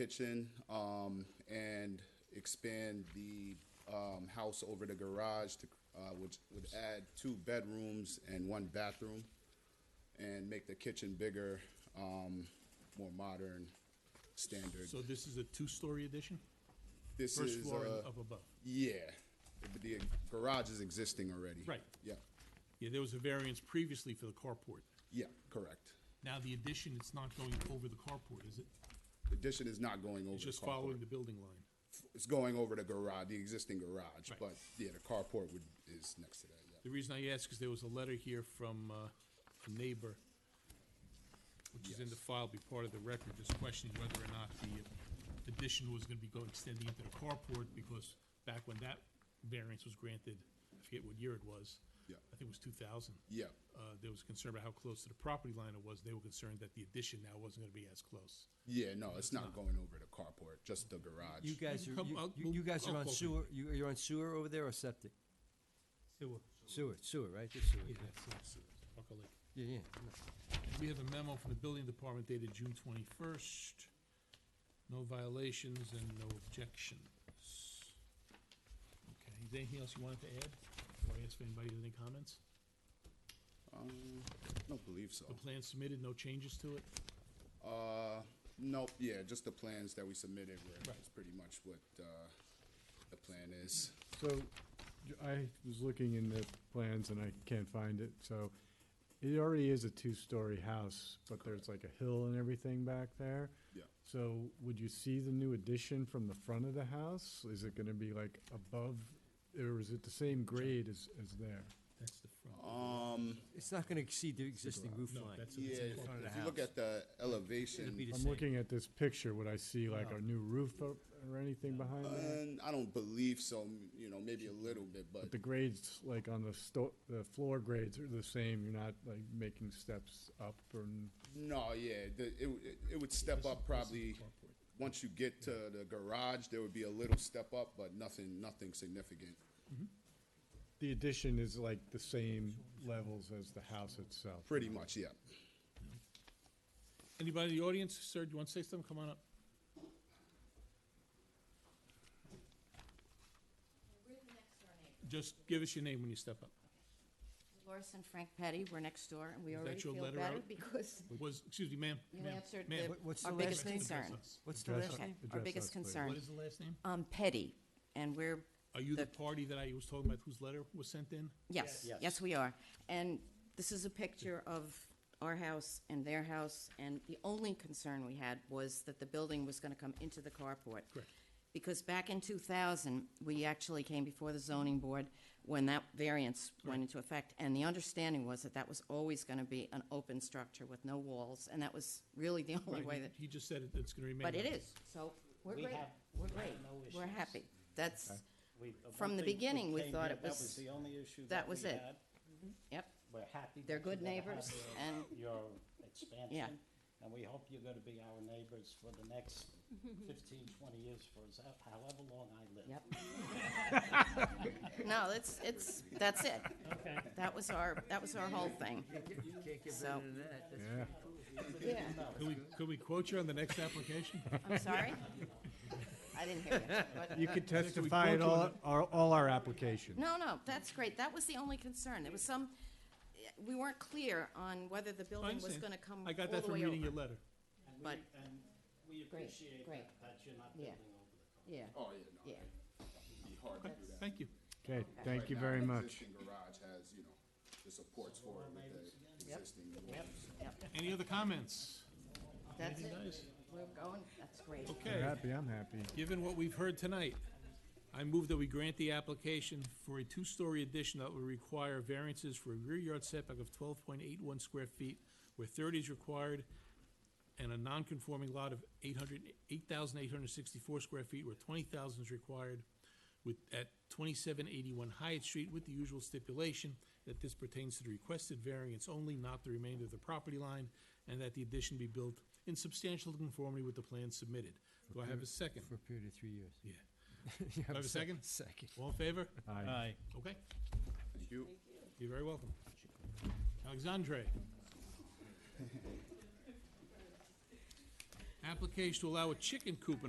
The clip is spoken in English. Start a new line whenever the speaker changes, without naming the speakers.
kitchen um, and expand the um, house over the garage to, uh, which would add two bedrooms and one bathroom and make the kitchen bigger, um, more modern, standard.
So this is a two-story addition?
This
First
is,
floor and
uh,
up above?
yeah, but the garage is existing already.
Right.
Yeah,
Yeah, there was a variance previously for the carport.
yeah, correct.
Now the addition, it's not going over the carport, is it?
The addition is not going over the
It's just
carport.
following the building line.
It's going over the garage, the existing garage,
Right.
but yeah, the carport would, is next to that, yeah.
The reason I ask is there was a letter here from uh, a neighbor, which is in the file, be part of the record, just questioning whether or not the addition was going to be going, extending into the carport, because back when that variance was granted, I forget what year it was.
Yeah.
I think it was 2000.
Yeah,
uh, there was concern about how close to the property line it was. They were concerned that the addition now wasn't going to be as close.
yeah, no, it's not going over the carport, just the garage.
You guys are,
come-
you-
I'll-
you,
we'll-
you guys
I'll
are on
call them.
sewer, you, you're on sewer over there or septic?
Sewer.
Sewer, sewer, right, Just sewer,
Yeah,
yeah,
that's- Buckle Lake.
yeah, yeah.
We have a memo from the building department dated June twenty-first. No violations and no objections. Okay, is there anything else you wanted to add? Before I ask if anybody has any comments?
Um, don't believe so.
The plan submitted, no changes to it?
Uh, nope, yeah, just the plans that we submitted were,
Right.
is pretty much what, uh, the plan is.
So j- I was looking in the plans and I can't find it, so it already is a two-story house, but there's like a hill and everything back there.
Yeah.
So would you see the new addition from the front of the house? Is it gonna be like above, or is it the same grade as, as there?
That's the front.
Um,
It's not gonna exceed the existing roof
No,
line.
that's-
yeah,
it's in
if
front of the
you look
house.
at the
It'd be
elevation,
the
I'm
same.
looking at this picture, would I see like a new roof or, or anything behind
Uh,
it?
and I don't believe so, you know, maybe a little bit, but
But the grades, like on the sto, the floor grades are the same, you're not like making steps up or?
No, yeah, the, it, w- it- it would step
This is-
up probably,
this is carport.
once you get to the garage, there would be a little step up, but nothing, nothing significant.
The addition is like the same levels as the house itself.
Pretty much, yeah.
Anybody in the audience, sir, do you want to say something? Come on up.
We're the next door neighbor.
Just give us your name when you step up.
Loris and Frank Petty, we're next door, and we
Is that
already
your
feel
letter
better
out?
because
Was, excuse me, ma'am?
you
ma'am,
answered
ma'am.
the-
What- what's
our
the
biggest
last name?
concern.
What's the
Address
last
us.
Okay,
name?
our
Address
biggest
us, please.
What
concern.
is the last name?
Um, Petty, and we're,
Are you the
The-
party that I was talking about whose letter was sent in?
yes, yes, we are. And this is a picture of our house and their house, and the only concern we had was that the building was gonna come into the carport.
Correct.
Because back in two thousand, we actually came before the zoning board when that variance went into effect, and the understanding was that that was always gonna be an open structure with no walls, and that was really the only way that.
He just said it- it's going to remain.
But it
that.
is, so we're
We
great,
have-
we're
we have
great,
no
we're
issues.
happy. That's,
We- uh,
From
one
the
thing
beginning, we
came
thought
here,
it
That
was-
was the only issue
that
that
was
we
it.
had.
yep,
We're happy.
They're
that
good
you're gonna
neighbors,
have
and-
your- Your expansion, and we hope you're gonna be our neighbors for the next fifteen, twenty years, for as- however long I live.
yep. No, it's, it's, that's it.
Okay.
That was our, that was our whole thing.
You can't get
So-
better than that. That's-
Yeah,
Yeah,
Could we, could we quote you on the next application?
I'm sorry? I didn't hear you. but-
you could
testify
testify
at
at
all-
all, our, all our applications.
No, no, that's great. That was the only concern. There was some, we weren't clear on whether the
I
building was
understand.
gonna come all
I got
the
that from
way
reading your
over.
letter.
And
But-
we- And we
Great,
appreciate
great.
that, that you're not
Yeah.
building over the
Yeah,
top.
Oh, yeah, no,
yeah.
it'd be hard to
Okay,
do that.
Thank you.
Okay, thank
Right
you
now,
very
the
much.
Existing garage has, you know, the supports for it with the existing walls.
Any other comments?
That's it.
Guys?
We're going, that's great.
You're
Okay,
happy, I'm happy.
given what we've heard tonight, I move that we grant the application for a two-story addition that will require variances for a rear yard setback of twelve point eight one square feet, where thirty is required, and a non-conforming lot of 800 8,864 square feet, where twenty thousand is required, with, at twenty-seven eighty-one Hyatt Street, with the usual stipulation that this pertains to the requested variance only, not the remainder of the property line, and that the addition be built in substantial conformity with the plan submitted. Do I have a second?
For a period of three years.
Yeah.
You
Do I have a
sec-
second?
Second.
All in favor?
Aye.
Okay,
Thank you.
you're very welcome. Alexandre. Application to allow a chicken coop in